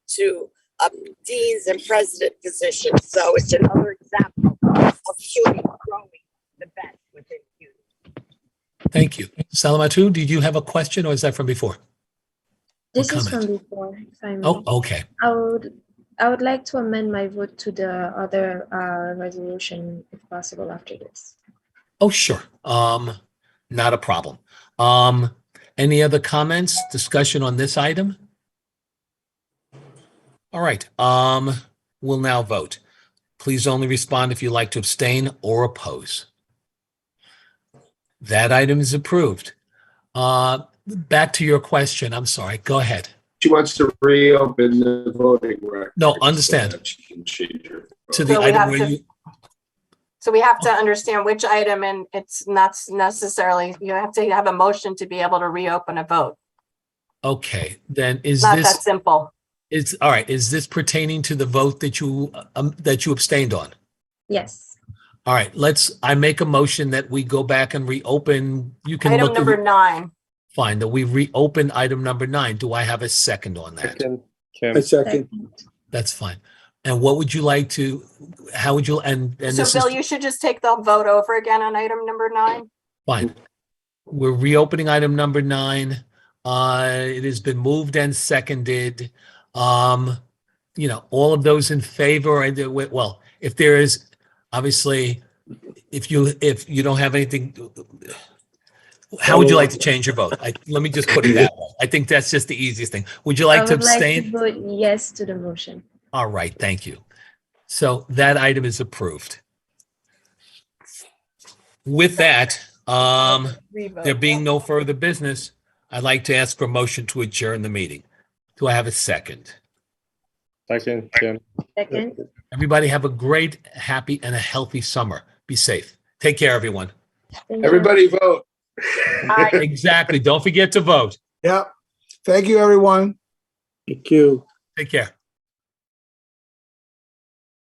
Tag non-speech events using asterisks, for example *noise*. to um, deans and president positions. So it's another example of CUNY growing the best within CUNY. Thank you. Salamatu, did you have a question or is that from before? This is comment? from before, if I may. Oh, okay. I would, I would like to amend my vote to the other uh, resolution if possible after this. Oh, sure. Um, not a problem. Um, any other comments, discussion on this item? All right, um, we'll now vote. Please only respond if you like to abstain or oppose. That item is approved. Uh, back to your question. I'm sorry. Go ahead. She wants to reopen the voting record. No, understand. So that she can change her vote. To the So we have item where to- you, So we have to understand which item and it's not necessarily, you have to have a motion to be able to reopen a vote. okay, then is It's Not that this, simple. it's, all right, is this pertaining to the vote that you, um, that you abstained on? Yes, All right, let's, I make a motion that we go back and reopen, you can Item look, number nine. fine, that we reopen item number nine. Do I have a second on that? Second, I Kim. second. That's fine. And what would you like to, how would you, and, and So this Bill, is you should just take the vote over again on item number nine. fine. We're reopening item number nine. Uh, it has been moved and seconded. Um, you know, all of those in favor, and, well, if there is, obviously, if you, if you don't have anything, how would you like to change your vote? I, let me just put it that way. I think that's just the easiest thing. Would you I like to would like to abstain? vote yes to the motion. All right, thank you. So that item is approved. With that, um, there being no further business, I'd like to ask for a motion to adjourn the meeting. Do I have a second? Second, Kim. Second, Everybody have a great, happy, and a healthy summer. Be safe. Take care, everyone. thank you. Everybody vote. *laughs* Exactly. Don't forget to vote. Yeah. Thank you, everyone. Thank you. Take care.